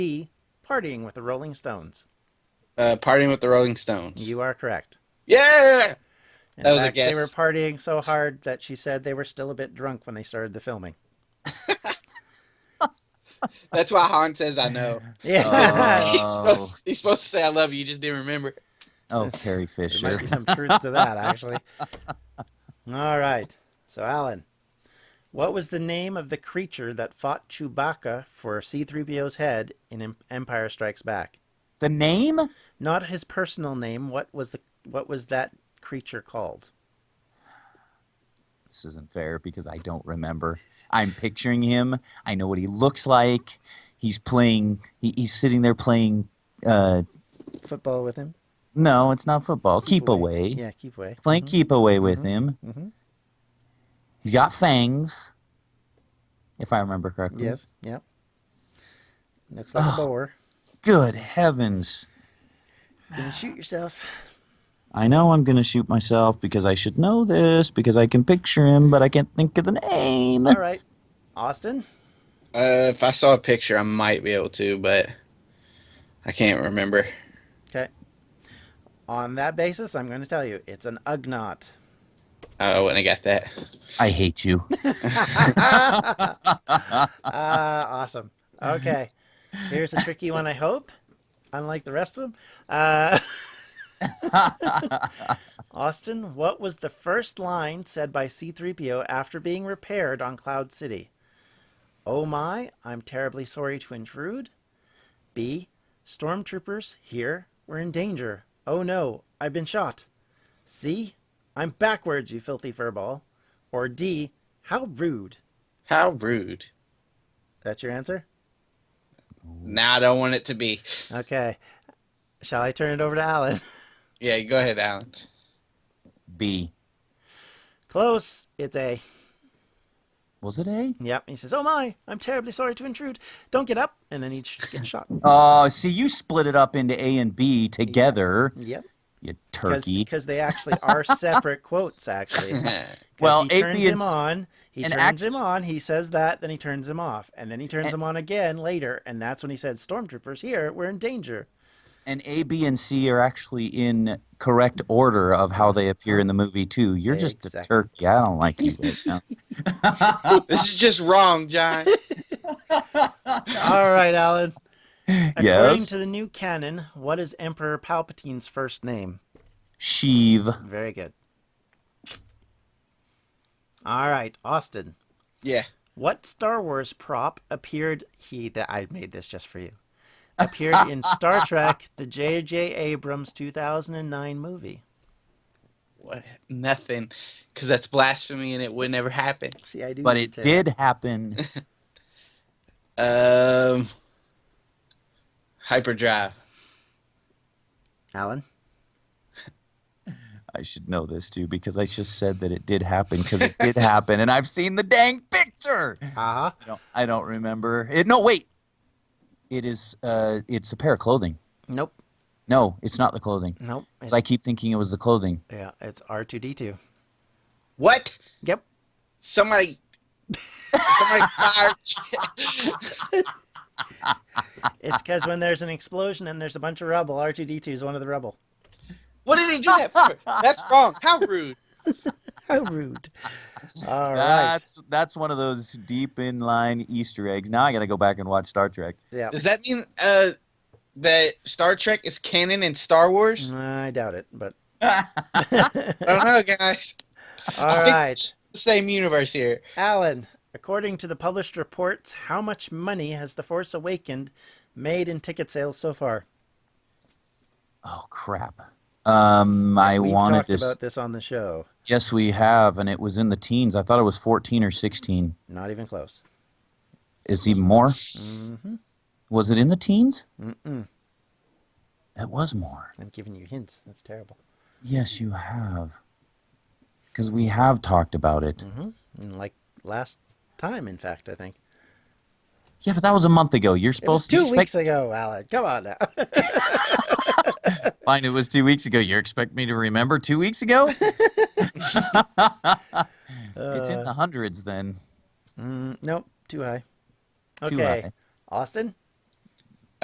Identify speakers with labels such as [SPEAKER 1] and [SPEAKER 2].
[SPEAKER 1] B. Partying with the Rolling Stones.
[SPEAKER 2] Uh, partying with the Rolling Stones.
[SPEAKER 1] You are correct.
[SPEAKER 2] Yeah.
[SPEAKER 1] In
[SPEAKER 2] That was a
[SPEAKER 1] fact, They
[SPEAKER 2] guess.
[SPEAKER 1] were partying so hard that she said they were still a bit drunk when they started the filming.
[SPEAKER 2] That's why Han says I know.
[SPEAKER 3] Oh.
[SPEAKER 1] Yeah.
[SPEAKER 2] he's, supposed, he's supposed to say I love you. You just didn't remember.
[SPEAKER 3] Oh, Carrie
[SPEAKER 1] There might
[SPEAKER 3] Fisher.
[SPEAKER 1] be some truth to that, actually. All right. So, Alan, what was the name of the creature that fought Chewbacca for C3PO's head in Em- Empire Strikes Back?
[SPEAKER 3] The name?
[SPEAKER 1] Not his personal name. What was the what was that creature called?
[SPEAKER 3] This isn't fair because I don't remember. I'm picturing him. I know what he looks like. He's playing. He, he's sitting there playing. Uh,
[SPEAKER 1] Football with him?
[SPEAKER 3] no, it's not football. Keep, away.
[SPEAKER 1] Yeah, Mm-hmm. keep away.
[SPEAKER 3] Playing keep away with him.
[SPEAKER 1] Mhm.
[SPEAKER 3] He's got fangs, if I remember correctly.
[SPEAKER 1] Yes. Yep. Looks like a boar.
[SPEAKER 3] Good heavens!
[SPEAKER 1] Gonna shoot yourself.
[SPEAKER 3] I know I'm gonna shoot myself because I should know this because I can picture him, but I can't think of the name.
[SPEAKER 1] All right. Austin?
[SPEAKER 2] Uh, if I saw a picture, I might be able to, but I can't remember.
[SPEAKER 1] Okay. On that basis, I'm going to tell you it's an Ugnaught.
[SPEAKER 2] uh, I wouldn't have got that.
[SPEAKER 3] I hate you.
[SPEAKER 1] Ah, Uh, awesome. Okay. Here's a tricky one, I hope, unlike the rest of them. Uh, Austin, what was the first line said by C3PO after being repaired on Cloud City? Oh my, I'm terribly sorry to intrude. B, stormtroopers here, we're in danger. Oh no, I've been shot. C, I'm backwards, you filthy furball. Or D, how rude.
[SPEAKER 2] How rude.
[SPEAKER 1] That's your answer?
[SPEAKER 2] Now I don't want it to be.
[SPEAKER 1] Okay. Shall I turn it over to Alan?
[SPEAKER 2] Yeah, go ahead, Alan.
[SPEAKER 3] B.
[SPEAKER 1] Close. It's A.
[SPEAKER 3] Was it A?
[SPEAKER 1] Yep. He says, Oh my, I'm terribly sorry to intrude. Don't get up. And then he sh- gets shot.
[SPEAKER 3] Oh, see, you split it up into A and B together.
[SPEAKER 1] Yep.
[SPEAKER 3] You turkey.
[SPEAKER 1] Because they actually are separate quotes, actually. 'Cause
[SPEAKER 3] Well,
[SPEAKER 1] he turns
[SPEAKER 3] A, B,
[SPEAKER 1] him
[SPEAKER 3] and C-
[SPEAKER 1] on. He
[SPEAKER 3] and
[SPEAKER 1] turns
[SPEAKER 3] act-
[SPEAKER 1] him on. He says that. Then he turns him off. And then he turns
[SPEAKER 3] And-
[SPEAKER 1] him on again later. And that's when he said, Stormtroopers here, we're in danger.
[SPEAKER 3] And A, B, and C are actually in correct order of how they appear in the movie too. You're just a
[SPEAKER 1] Exactly.
[SPEAKER 3] turkey. I don't like you right now.
[SPEAKER 2] This is just wrong, John.
[SPEAKER 1] All right, Alan. According
[SPEAKER 3] Yes?
[SPEAKER 1] to the new canon, what is Emperor Palpatine's first name?
[SPEAKER 3] Sheev.
[SPEAKER 1] Very good. All right, Austin.
[SPEAKER 2] Yeah.
[SPEAKER 1] What Star Wars prop appeared he that I made this just for you. Appeared in Star Trek, the J.J. Abrams 2009 movie.
[SPEAKER 2] What? Nothing. Because that's blasphemy and it would never happen.
[SPEAKER 1] See, I do.
[SPEAKER 3] But it
[SPEAKER 1] detail.
[SPEAKER 3] did happen.
[SPEAKER 2] Um, hyperdrive.
[SPEAKER 1] Alan.
[SPEAKER 3] I should know this too because I just said that it did happen because it did happen, and I've seen the dang picture.
[SPEAKER 1] Uh huh.
[SPEAKER 3] I don't, I don't remember it. No, wait. It is. Uh, it's a pair of clothing.
[SPEAKER 1] Nope.
[SPEAKER 3] No, it's not the clothing.
[SPEAKER 1] Nope. It's
[SPEAKER 3] So I keep thinking it was the clothing.
[SPEAKER 1] yeah, it's R2D2.
[SPEAKER 2] What?
[SPEAKER 1] Yep.
[SPEAKER 2] Somebody. Somebody fired.
[SPEAKER 1] It's because when there's an explosion and there's a bunch of rubble, R2D2 is one of the rubble.
[SPEAKER 2] What did he do that for? That's wrong. How rude.
[SPEAKER 1] How rude. All right.
[SPEAKER 3] That's that's one of those deep in line Easter eggs. Now I got to go back and watch Star Trek.
[SPEAKER 1] Yeah.
[SPEAKER 2] Does that mean uh, that Star Trek is canon in Star Wars?
[SPEAKER 1] I doubt it, but.
[SPEAKER 2] I don't know, guys.
[SPEAKER 1] All
[SPEAKER 2] I think
[SPEAKER 1] right.
[SPEAKER 2] it's the same universe here.
[SPEAKER 1] Alan, according to the published reports, how much money has The Force Awakened made in ticket sales so far?
[SPEAKER 3] Oh crap. Um, I
[SPEAKER 1] We've
[SPEAKER 3] wanted
[SPEAKER 1] talked
[SPEAKER 3] to. s-
[SPEAKER 1] about this on the show.
[SPEAKER 3] Yes, we have, and it was in the teens. I thought it was fourteen or sixteen.
[SPEAKER 1] Not even close.
[SPEAKER 3] It's even more.
[SPEAKER 1] hmm
[SPEAKER 3] Was it in the teens?
[SPEAKER 1] Mm-mm.
[SPEAKER 3] It was more.
[SPEAKER 1] I'm giving you hints. That's terrible.
[SPEAKER 3] Yes, you have. Because we have talked about it.
[SPEAKER 1] Mm. Mm-hmm. And like last time, in fact, I think
[SPEAKER 3] Yeah, but that was a month ago.
[SPEAKER 1] it
[SPEAKER 3] You're
[SPEAKER 1] was
[SPEAKER 3] supposed
[SPEAKER 1] two
[SPEAKER 3] to
[SPEAKER 1] weeks
[SPEAKER 3] expect.
[SPEAKER 1] ago. Alan, come on now.
[SPEAKER 3] Fine, it was two weeks ago. You expect me to remember two weeks ago?
[SPEAKER 1] Uh,
[SPEAKER 3] it's in the hundreds then.
[SPEAKER 1] Mm, Uh, nope, too high.
[SPEAKER 3] Too
[SPEAKER 1] Okay,
[SPEAKER 3] high.
[SPEAKER 1] Austin,